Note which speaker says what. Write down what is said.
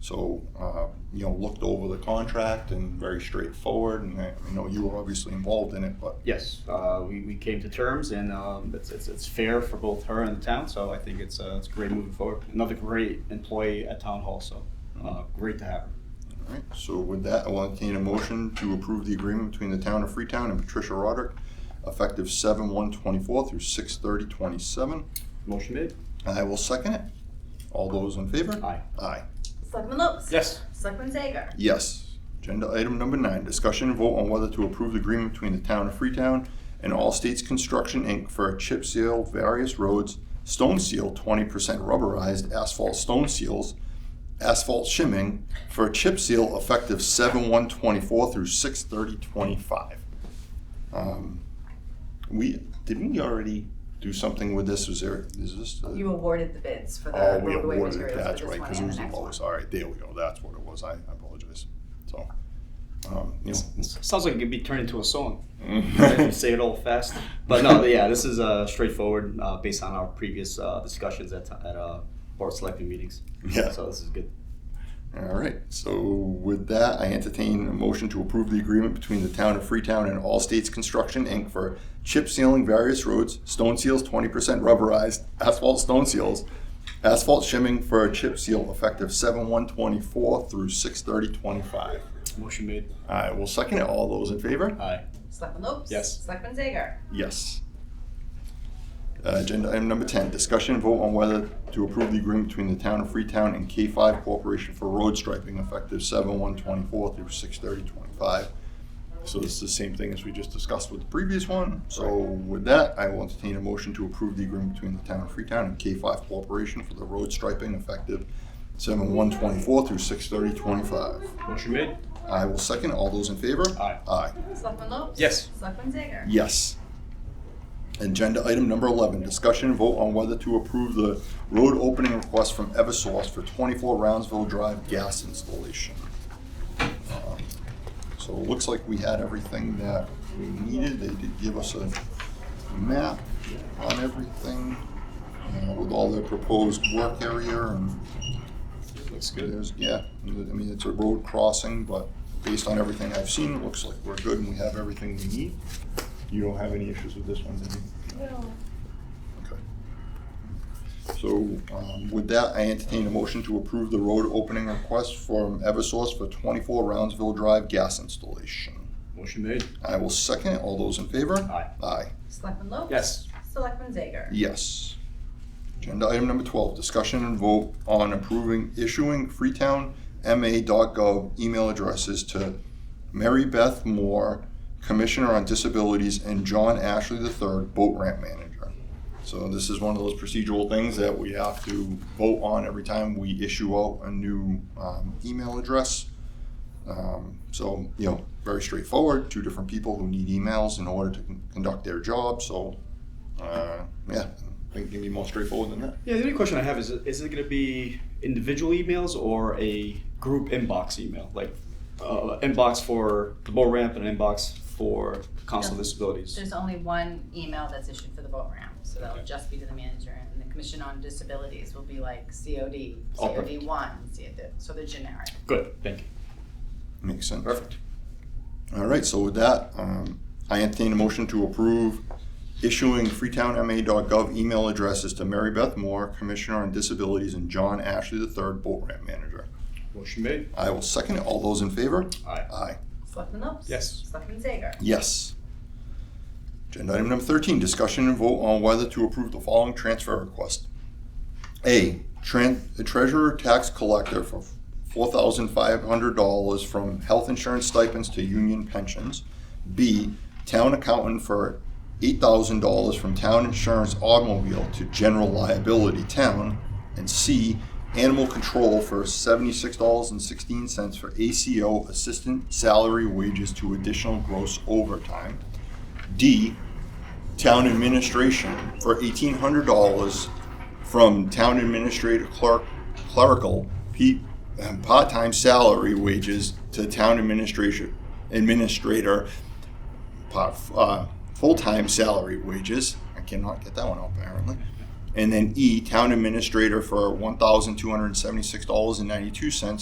Speaker 1: So, uh, you know, looked over the contract and very straightforward, and I I know you were obviously involved in it, but
Speaker 2: Yes, uh, we, we came to terms and um, it's, it's, it's fair for both her and the town, so I think it's, uh, it's great moving forward. Another great employee at Town Hall, so uh, great to have her.
Speaker 1: All right, so with that, I'll entertain a motion to approve the agreement between the town of Freetown and Patricia Roderick, effective seven one twenty-four through six thirty twenty-seven.
Speaker 2: Motion made?
Speaker 1: I will second it. All those in favor?
Speaker 2: Aye.
Speaker 1: Aye.
Speaker 3: Selectman Lopes.
Speaker 2: Yes.
Speaker 3: Selectman Zager.
Speaker 1: Yes. Agenda item number nine, discussion and vote on whether to approve the agreement between the town of Freetown and All States Construction, Inc. for a chip seal various roads, stone seal twenty percent rubberized asphalt stone seals, asphalt shimming for a chip seal effective seven one twenty-four through six thirty twenty-five. Um, We, didn't we already do something with this? Was there, is this? a-
Speaker 3: You awarded the bids for
Speaker 1: Oh,
Speaker 3: the
Speaker 1: we
Speaker 3: roadway
Speaker 1: awarded it,
Speaker 3: materials
Speaker 1: that's
Speaker 3: for this
Speaker 1: right,
Speaker 3: one
Speaker 1: because it
Speaker 3: and
Speaker 1: was
Speaker 3: the
Speaker 1: the
Speaker 3: next one.
Speaker 1: lowest, all right, there we go, that's what it was, I I apologize, so. um, you know.
Speaker 2: Sounds like it could be turned into a song. If you say it all fast. But no, yeah, this is uh, straightforward uh, based on our previous uh, discussions at, at uh, board selecting meetings.
Speaker 1: Yeah.
Speaker 2: So this is good.
Speaker 1: All right, so with that, I entertain a motion to approve the agreement between the town of Freetown and All States Construction, Inc. for chip sealing various roads, stone seals twenty percent rubberized, asphalt stone seals, asphalt shimming for a chip seal effective seven one twenty-four through six thirty twenty-five.
Speaker 2: Motion made.
Speaker 1: I will second it, all those in favor?
Speaker 2: Aye.
Speaker 3: Selectman Lopes.
Speaker 2: Yes.
Speaker 3: Selectman Zager.
Speaker 1: Yes. Uh, Agenda item number 10, discussion and vote on whether to approve the agreement between the town of Freetown and K5 Corporation for road striping effective 7/1/24 through 6/30/25. So this is the same thing as we just discussed with the previous one. So with that, I will entertain a motion to approve the agreement between the town of Freetown and K5 Corporation for the road striping effective 7/1/24 through 6/30/25.
Speaker 2: Motion made.
Speaker 1: I will second. All those in favor?
Speaker 2: Aye.
Speaker 1: Aye.
Speaker 3: Selectman Lopes.
Speaker 2: Yes.
Speaker 3: Selectman Zager.
Speaker 1: Yes. Agenda item number 11, discussion and vote on whether to approve the road opening request from Eversource for 24 Roundsville Drive gas installation. Um, So it looks like we had everything that we needed. They did give us a map on everything uh, with all the proposed work area and
Speaker 2: Looks
Speaker 1: there's, yeah, I mean, it's a road crossing, but based on everything I've seen, it looks like we're good and we have everything we need. You don't have any issues with this one, do you? No. Okay. So, um, with that, I entertain a motion to approve the road opening request from Eversource for twenty-four Roundsville Drive gas installation.
Speaker 2: Motion made.
Speaker 1: I will second it. All those in favor?
Speaker 2: Aye.
Speaker 1: Aye.
Speaker 3: Selectman Lopes.
Speaker 2: Yes.
Speaker 3: Selectman Zager.
Speaker 1: Yes. Agenda item number twelve, discussion and vote on approving issuing Freetown MA.gov email addresses to Mary Beth Moore, Commissioner on Disabilities, and John Ashley III, Boat Ramp Manager. So this is one of those procedural things that we have to vote on every time we issue out a new um, email address. Um, So, you know, very straightforward, two different people who need emails in order to con- conduct their job, so uh, yeah, I think it can be more straightforward than that.
Speaker 2: Yeah, the only question I have is is it going to be individual emails or a group inbox email? Like uh, inbox for the boat ramp and an inbox for council
Speaker 3: Yeah.
Speaker 2: disabilities?
Speaker 3: There's only one email that's issued for the boat ramp, so that'll just be to the manager. And the Commission on Disabilities will be like COD,
Speaker 2: Oh,
Speaker 3: COD one, so they're generic.
Speaker 2: Good, thank you.
Speaker 1: Makes sense.
Speaker 2: Perfect.
Speaker 1: All right, so with that, um, I entertain a motion to approve issuing freetownma.gov email addresses to Mary Beth Moore, Commissioner on Disabilities, and John Ashley III, Boat Ramp Manager.
Speaker 2: Motion made.
Speaker 1: I will second it. All those in favor?
Speaker 2: Aye.
Speaker 1: Aye.
Speaker 3: Selectman Lopes.
Speaker 2: Yes.
Speaker 3: Selectman Zager.
Speaker 1: Yes. Agenda item number thirteen, discussion and vote on whether to approve the following transfer request. A, tran- the treasurer tax collector for four thousand five hundred dollars from health insurance stipends to union pensions. B, town accountant for eight thousand dollars from town insurance automobile to general liability town. And C, animal control for seventy-six dollars and sixteen cents for ACO assistant salary wages to additional gross overtime. D, town administration for eighteen hundred dollars from town administrator clerk, clerical, P, um, part-time salary wages to town administration, administrator, part, uh, full-time salary wages. I cannot get that one out apparently. And then E, town administrator for one thousand two hundred and seventy-six dollars and ninety-two cents